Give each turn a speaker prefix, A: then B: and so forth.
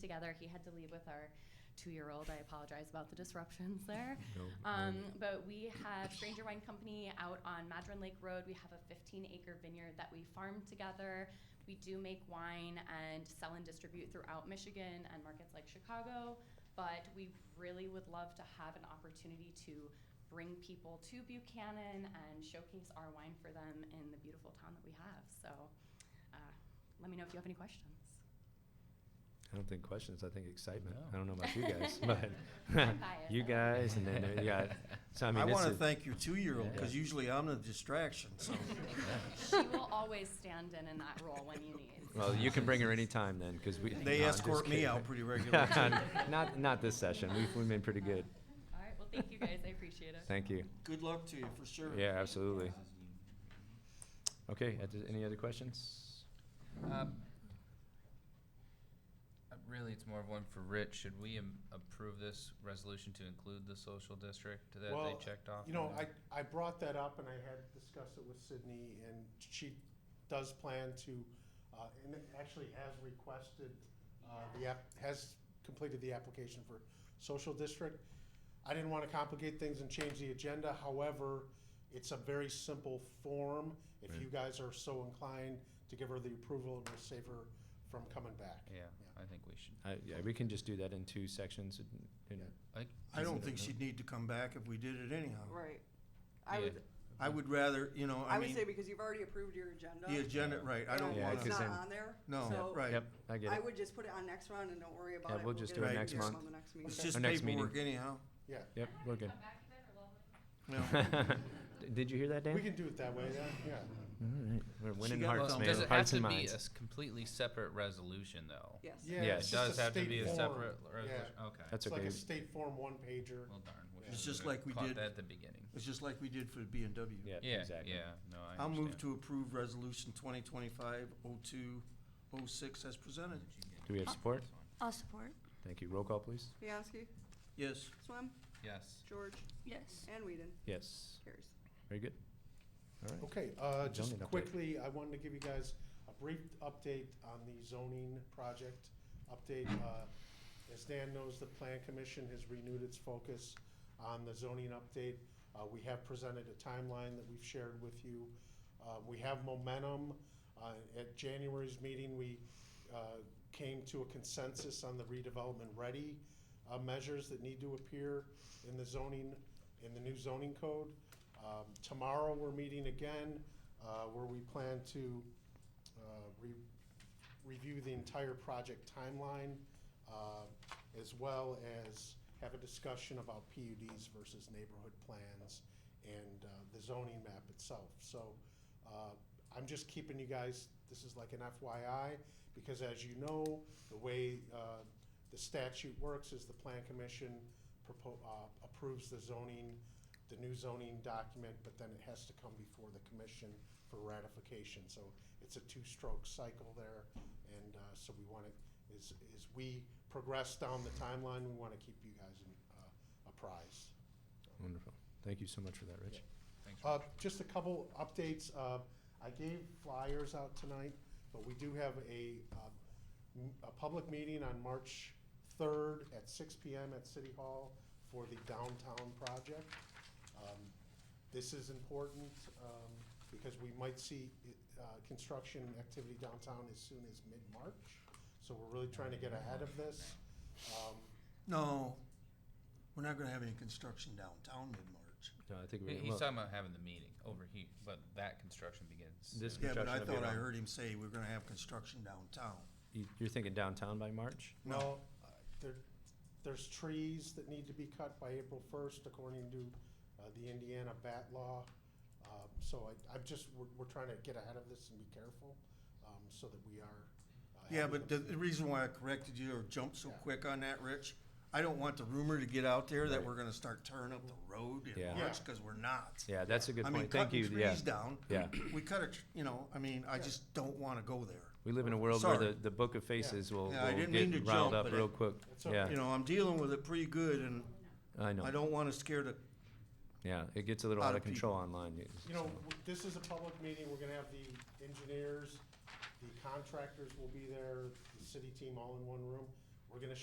A: together. He had to leave with our two-year-old. I apologize about the disruptions there.
B: No,
A: Um, but we have Stranger Wine Company out on Madron Lake Road. We have a 15 acre vineyard that we farm together. We do make wine and sell and distribute throughout Michigan and markets like Chicago. But we really would love to have an opportunity to bring people to Buchanan and showcase our wine for them in the beautiful town that we have. So uh, let me know if you have any questions.
B: I don't think questions. I think excitement.
C: No.
B: I don't know about you guys, but
A: I'm biased, I
B: you
A: love it.
B: guys, and then uh, you got. So I
D: I,
B: mean, it's
D: want to
B: a-
D: thank your two-year-old because
C: Yeah.
D: usually I'm the distraction. So
A: she will always stand in in that role when you need.
B: Well, you can bring her anytime then, because we.
D: They
B: no, I'm
D: escort
B: just
D: me
B: kidding.
D: out pretty regularly, too.
B: not not this session. We've, we've been pretty good.
A: All right. Well, thank you guys. I appreciate it.
B: Thank you.
D: good luck to you for sure.
B: Yeah, absolutely. Okay. uh, does- Any other questions?
C: Um, uh, Really, it's more of one for Rich. Should we am- approve this resolution to include the social district that they
E: Well,
C: checked off?
E: You know, I, I brought that up and I had discussed it with Sydney and she does plan to, uh, and actually has requested, uh, the app, has completed the application for social district. I didn't wanna complicate things and change the agenda, however, it's a very simple form. If you guys are so inclined to give her the approval, it will save her from coming back.
C: Yeah, I think we should.
B: Uh, yeah, we can just do that in two sections. and- and-
D: I don't think she'd need to come back if we did it anyhow.
F: Right. I
C: Yeah.
F: would,
D: I would rather, you know, I,
F: I would
D: mean,
F: say because you've already approved your agenda.
D: the agenda, right? I don't
F: and
B: Yeah,
D: want
F: It's
B: because
F: not
B: then-
F: on there.
D: No,
F: so
D: right.
B: Yep, I get
F: I
B: it.
F: would just put it on next round and don't worry about it.
B: Yeah, we'll just
F: get
D: do it
F: back
D: next
F: to
D: month.
F: On the next
D: It's
F: meeting.
D: just
B: Our next meeting.
D: paperwork anyhow.
B: Yep, we're good.
D: No.
B: D- Did you hear that, Dan?
E: We can do it that way, yeah, yeah.
B: All right. We're winning
D: got
B: hearts,
D: some-
B: man.
C: Does it have
B: hearts
C: to
B: and
C: be a
B: minds.
C: s- completely separate resolution, though?
F: Yes.
E: Yeah,
B: Yeah,
E: it's
C: It
E: just
C: does have to
E: state
C: be a
E: form.
C: separate
E: Yeah.
C: resolution, okay.
B: That's
E: It's like
B: okay.
E: a state form one pager.
C: Well, darn. we
E: It's
C: should've
D: just like we
C: caught
D: did-
C: that At the beginning.
D: It's just like we did for the B and W.
B: Yeah,
C: Yeah,
B: exactly.
C: yeah, no, I
D: I'll move
C: understand.
D: to approve resolution 2025-0206 as presented.
B: Do we have support?
G: I'll support.
B: Thank you. Roll call, please.
F: Bianski,
D: Yes.
F: Swam,
C: Yes.
F: George,
G: Yes.
F: and Whedon.
B: Yes.
F: Carries.
B: Very good. All right.
E: Okay, uh, just
B: Zoning update.
E: quickly, I wanted to give you guys a brief update on the zoning project update. Uh, As Dan knows, the Plan Commission has renewed its focus on the zoning update. Uh, we have presented a timeline that we've shared with you. Uh, we have momentum. Uh, at January's meeting, we, uh, came to a consensus on the redevelopment ready, uh, measures that need to appear in the zoning, in the new zoning code. Um, Tomorrow, we're meeting again, uh, where we plan to uh, re- review the entire project timeline, uh, as well as have a discussion about PUDs versus neighborhood plans and uh, the zoning map itself. So uh, I'm just keeping you guys, this is like an FYI, because as you know, the way uh, the statute works is the Plan Commission propo- uh, approves the zoning, the new zoning document, but then it has to come before the commission for ratification. So it's a two-stroke cycle there, and uh, so we want to, as, as we progress down the timeline, we want to keep you guys in, uh, apprised.
B: Wonderful. Thank you so much for that, Rich.
C: Thanks.
E: Uh, just a couple updates. Uh, I gave flyers out tonight, but we do have a, uh, m- a public meeting on March third at six P M at City Hall for the downtown project. Um, This is important, um, because we might see, uh, construction activity downtown as soon as mid-March. So we're really trying to get ahead of this. Um,
D: No, we're not gonna have any construction downtown mid-March.
B: No, I think
C: He-
B: we.
C: He's
B: well,
C: talking about having the meeting over here, but that construction begins.
B: This
C: soon.
D: Yeah, but I
B: Construction will be
D: thought I
B: around.
D: heard him say we're gonna have construction downtown.
B: you- You're thinking downtown by March?
E: No, uh, there, there's trees that need to be cut by April first according to, uh, the Indiana bat law. Um, so I, I'm just, we're, we're trying to get ahead of this and be careful, um, so that we are. uh,
D: Yeah,
E: having
D: but the,
E: them-
D: the reason why I corrected you or jumped so
E: Yeah.
D: quick on that, Rich, I don't want the rumor to get out there that
B: Right.
D: we're gonna start tearing up the road
B: Yeah.
D: in March, cause we're not.
B: Yeah, that's a good
D: I mean,
B: point. Thank you.
D: cutting
B: Yeah.
D: trees down.
B: Yeah.
D: We cut a, tr- you know, I mean, I just don't wanna go there.
B: We live in a world where
D: Sorry.
B: the, the book of faces will,
D: Yeah, I
B: will
D: didn't
B: get
D: mean to
B: riled
D: jump,
B: up
D: but
B: real
D: it-
B: quick.
E: It's
B: Yeah,
D: You know, I'm dealing with it pretty good and
B: I know.
D: I don't wanna scare the
B: yeah, it gets a little
D: Lot
B: out
D: of
B: of control online. You-
E: You know, w- this is a public meeting, we're gonna have the engineers, the contractors will be there, the city team all in one room. We're gonna